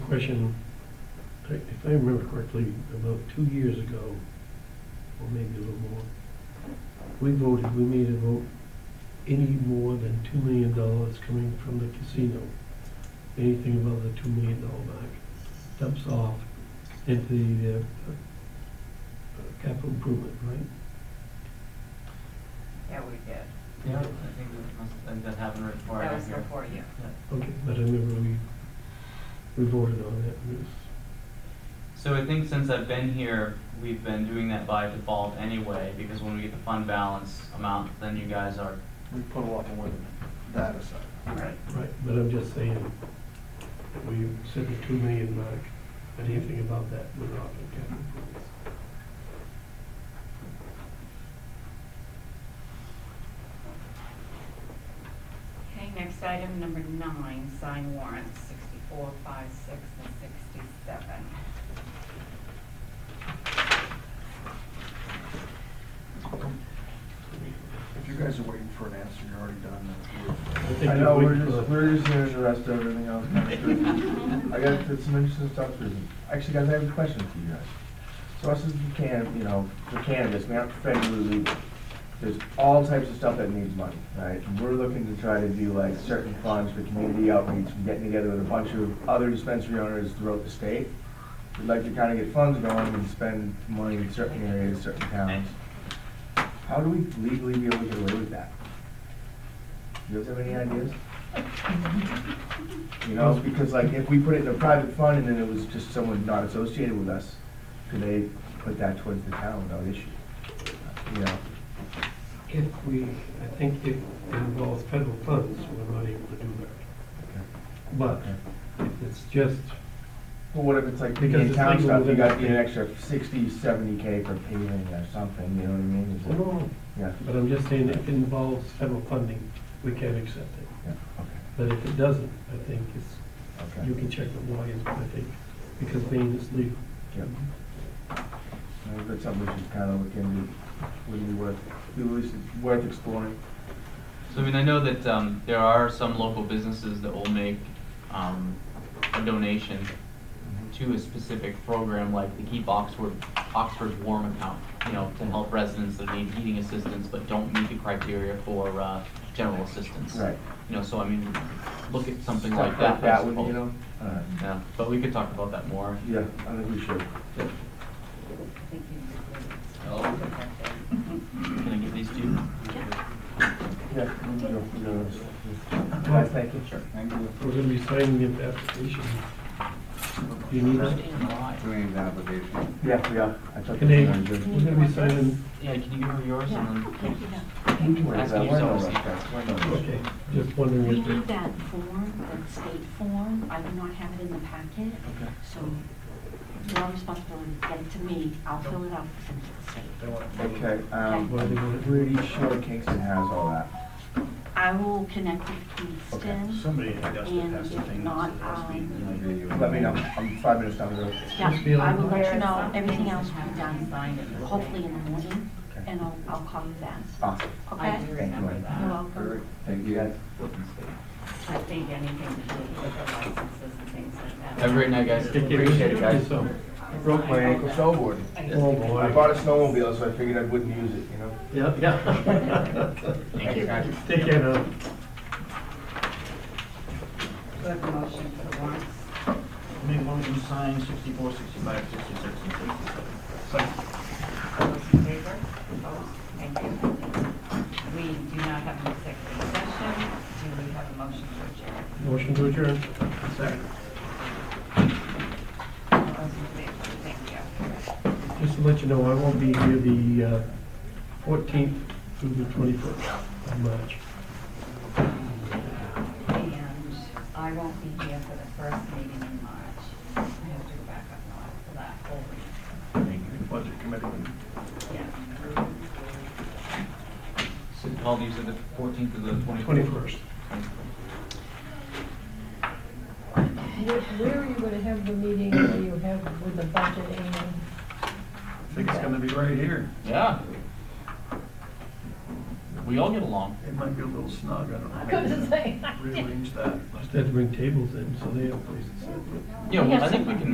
question, I- if I remember correctly, about two years ago, or maybe a little more, we voted, we made a vote, any more than two million dollars coming from the casino, anything above the two million dollar mark, dumps off into the uh, uh, capital improvement, right? Yeah, we did. Yeah, I think that must, I think that happened right before I That got was here. before you. Okay, but I remember we, we voted on that, and it was, So I think since I've been here, we've been doing that by default anyway, because when we get the fund balance amount, then you guys are, We put a lot more than that aside. Right. Right, but I'm just saying, we set the two million mark, but anything above that would not be capital improvements. Okay, next item, number nine, sign warrants, sixty-four, five, six, and sixty-seven. If you guys are waiting for an answer, you're already done. I think I know, we- we're just, we're just here to rest everything else. I got some interesting stuff to, actually, guys, I have a question for you guys. So us as the can, you know, for cannabis, we have to federally legal. There's all types of stuff that needs money, right? We're looking to try to do like certain funds for community outreach, and getting together with a bunch of other dispensary owners throughout the state. We'd like to kind of get funds going and spend money in certain areas, certain towns. How do we legally be able to get away with that? Do you guys have any ideas? You know, because like if we put it in a private fund and then it was just someone not associated with us, could they put that towards the town without issue? You know, If we, I think it involves federal funds, we're not able to do Okay. that. But Okay. if it's just, but what if it's like Because in it's town legal stuff, you within got the to get an state. extra sixty, seventy K for paving or something, you know what I mean? Is no, it- no, no. Yeah, but I'm just saying if it involves federal funding, we can accept it. yeah, okay, But if it doesn't, I think it's, okay. you can check the lawyers, I think, because being is legal. Yep. I think that's something we should kind of look into, would be worth, be worth- worth exploring. so I mean, I know that, um, there are some local businesses that will make, um, a donation to a specific program like the Keep Oxford, Oxford's Warm account, you know, to help residents that need heating assistance but don't meet the criteria for, uh, general assistance. Right. You know, so I mean, look at something Stuff like that. I That would, suppose. you know, alright, Yeah, but we could talk about that more. yeah, I think we should. I think you did good. Oh. Put that there. Can I give these to you? Yeah, we can go- we can go. Guys, thank you. Sure. Thank you. We're gonna be signing the application. Do you need that? Alright. doing an application. Yeah, we are. I took Can it. they, I'm we're good. gonna be signing, Yeah, can you give her yours and then? You can wait, Ask that. you We're so no much. rush, guys. We're no rush. okay, just wondering We if need they, that form, that state form, I do not have it in the packet, Okay. so your responsibility, get it to me, I'll fill it out, send it to the state. Okay, um, why they want it. pretty sure Kingston has all that. I will connect with Okay. Kingston, Somebody in Augusta And passed a if thing not, that said last week, um, like, you- Let me know. I'm five minutes down the road. Just yeah, feel I will let There you is know, something everything else that will be hasn't done, signed in the- hopefully in the morning, Okay. Oh. and I'll, I'll call you then, Awesome. I okay? do Thank remember you. You're that. welcome. Thank you guys. I think anything to do with the licenses and things like that. Have a great night, guys. Take care. Appreciate it, guys. So, Broke my ankle snowboarding. Oh, boy. I bought a snowmobile, so I figured I wouldn't use it, you know? Yeah, yeah. Thank you. guys. Take care now. Do I have a motion for the warrants? Make one of them sign sixty-four, sixty-five, sixty-six, and sixty-seven. All those in favor? Opposed? Thank you. We do not have an executive session. Do we have a motion Motion to adjourn? to adjourn. All those in favor? Thank you. Just to let you know, I won't be here the uh, 14th through the 21st of March. And I won't be here for the first meeting in March. I have to go back up north for that whole week. Budget committee. Yeah. So Paul, you said the fourteenth to the twenty-fourth? 21st. Where, where are you gonna have the meeting that you have with the budget and? I think it's gonna be right here. Yeah. We all get along. It might be a little snug, I don't know. I was gonna say. Rearrange that. Must have to bring tables in, so they have places to sit. Yeah, We well, have I think we some- can